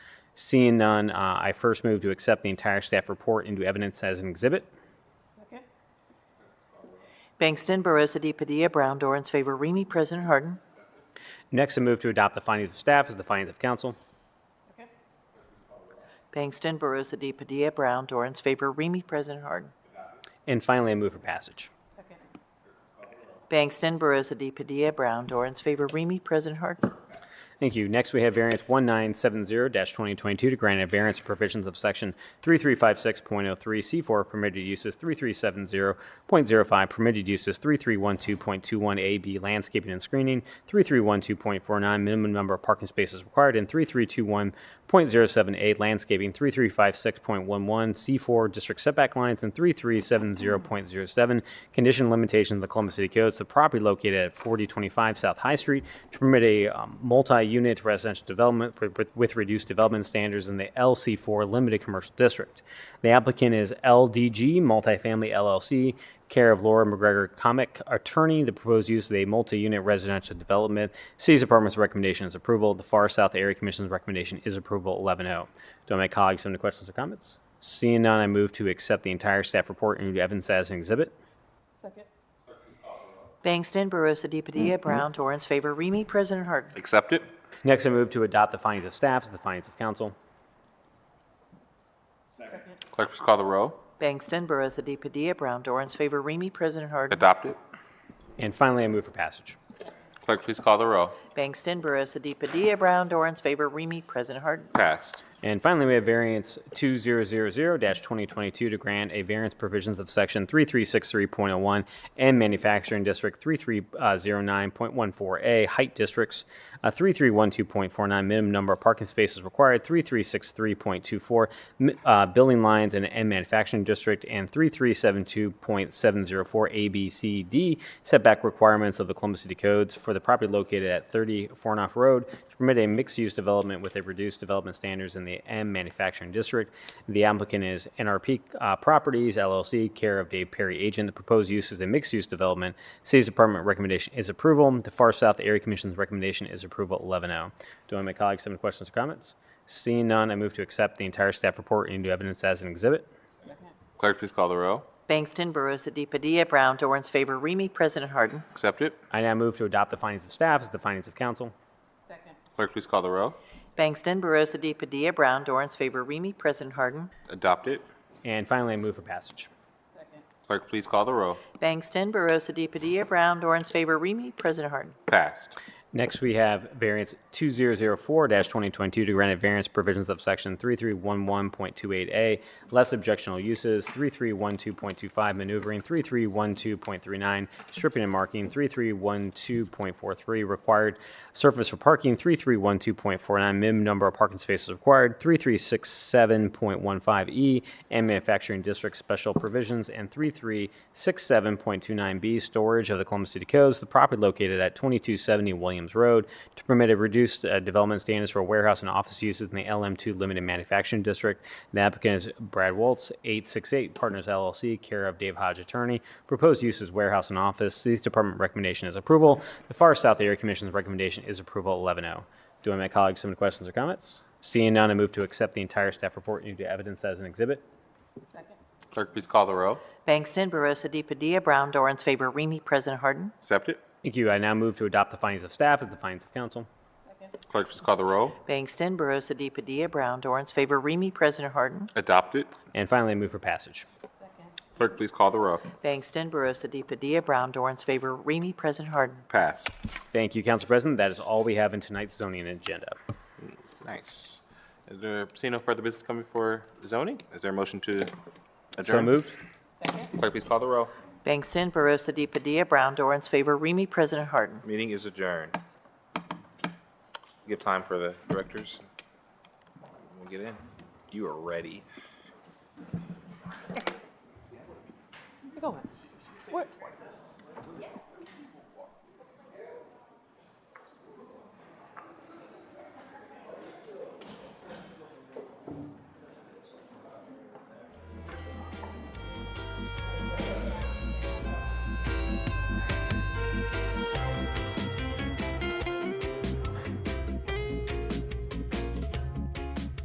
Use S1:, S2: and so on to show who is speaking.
S1: Seeing none, uh, I first move to accept the entire staff report into evidence as an exhibit.
S2: Second?
S3: Bangston, Barosa de Padilla, Brown, Dorans, favor, Remy, President Harden.
S1: Next, I move to adopt the findings of staff as the findings of council.
S2: Second?
S3: Bangston, Barosa de Padilla, Brown, Dorans, favor, Remy, President Harden.
S1: And finally, I move for passage.
S2: Second?
S3: Bangston, Barosa de Padilla, Brown, Dorans, favor, Remy, President Harden.
S1: Thank you. Next, we have variance 1970-2022 to grant a variance for provisions of Section 3356.03C4 permitted uses, 3370.05 permitted uses, 3312.21AB landscaping and screening, 3312.49 minimum number of parking spaces required, and 3321.078 landscaping, 3356.11 C4 district setback lines, and 3370.07 condition limitations of the Columbus City Codes to property located at 4025 South High Street to permit a um, multi-unit residential development for- with- with reduced development standards in the LC4 Limited Commercial District. The applicant is LDG Multifamily LLC, care of Laura McGregor Comic Attorney. The proposed use is a multi-unit residential development. City's Department's recommendation is approval. The Far South Area Commission's recommendation is approval oh. 11-0. Do my colleagues have any questions or comments? Seeing none, I move to accept the entire staff report and evidence as an exhibit.
S2: Second?
S3: Bangston, Barosa de Padilla, Brown, Dorans, favor, Remy, President Harden.
S4: Accept it?
S1: Next, I move to adopt the findings of staff as the findings of council.
S4: Clerk, please call the row.
S3: Bangston, Barosa de Padilla, Brown, Dorans, favor, Remy, President Harden.
S4: Adopt it.
S1: And finally, I move for passage.
S4: Clerk, please call the row.
S3: Bangston, Barosa de Padilla, Brown, Dorans, favor, Remy, President Harden.
S4: Passed.
S1: And finally, we have variance 2000-2022 to grant a variance provisions of section 3363.01 and manufacturing district 3309.14A height districts, uh, 3312.49 minimum number of parking spaces required, 3363.24 mi- uh, building lines and and manufacturing district, and 3372.704 A, B, C, D setback requirements of the Columbus City Codes for the property located at 30 Fornoff Road to permit a mixed-use development with a reduced development standards in the M manufacturing district. The applicant is NRP uh, Properties LLC, care of Dave Perry Agent. The proposed use is a mixed-use development. City's Department recommendation is approval. The Far South Area Commission's recommendation is approval 11-0. Do any of my colleagues have any questions or comments? Seeing none, I move to accept the entire staff report into evidence as an exhibit.
S4: Clerk, please call the row.
S3: Bangston, Barosa de Padilla, Brown, Dorans, favor, Remy, President Harden.
S4: Accept it.
S1: I now move to adopt the findings of staff as the findings of council.
S2: Second?
S4: Clerk, please call the row.
S3: Bangston, Barosa de Padilla, Brown, Dorans, favor, Remy, President Harden.
S4: Adopt it.
S1: And finally, I move for passage.
S2: Second?
S4: Clerk, please call the row.
S3: Bangston, Barosa de Padilla, Brown, Dorans, favor, Remy, President Harden.
S4: Passed.
S1: Next, we have variance 2004-2022 to grant a variance provisions of section 3311.28A, less objectionable uses, 3312.25 maneuvering, 3312.39 stripping and marking, 3312.43 required surface for parking, 3312.49 minimum number of parking spaces required, 3367.15E E, and manufacturing district special provisions, and 3367.29B storage of the Columbus City Codes, the property located at 2270 Williams Road to permit a reduced uh, development standards for warehouse and office uses in the LM2 Limited Manufacturing District. The applicant is Brad Waltz, 868 Partners LLC, care of Dave Hodge Attorney. Proposed use is warehouse and office. City's department recommendation is approval. The Far South Area Commission's recommendation is approval 11-0. Do my colleagues have any questions or comments? Seeing none, I move to accept the entire staff report into evidence as an exhibit.
S2: Second?
S4: Clerk, please call the row.
S3: Bangston, Barosa de Padilla, Brown, Dorans, favor, Remy, President Harden.
S4: Accept it.
S1: Thank you. I now move to adopt the findings of staff as the findings of council.
S2: Second?
S4: Clerk, please call the row.
S3: Bangston, Barosa de Padilla, Brown, Dorans, favor, Remy, President Harden.
S4: Adopt it.
S1: And finally, I move for passage.
S2: Second?
S4: Clerk, please call the row.
S3: Bangston, Barosa de Padilla, Brown, Dorans, favor, Remy, President Harden.
S4: Passed.
S1: Thank you, Council President. That is all we have in tonight's zoning agenda.
S4: Nice. Is there, seeing no further business coming for zoning? Is there a motion to adjourn?
S1: So moved?
S4: Clerk, please call the row.
S3: Bangston, Barosa de Padilla, Brown, Dorans, favor, Remy, President Harden.
S4: Meeting is adjourned. Give time for the directors. We'll get in. You are ready.
S2: Where you going? Where,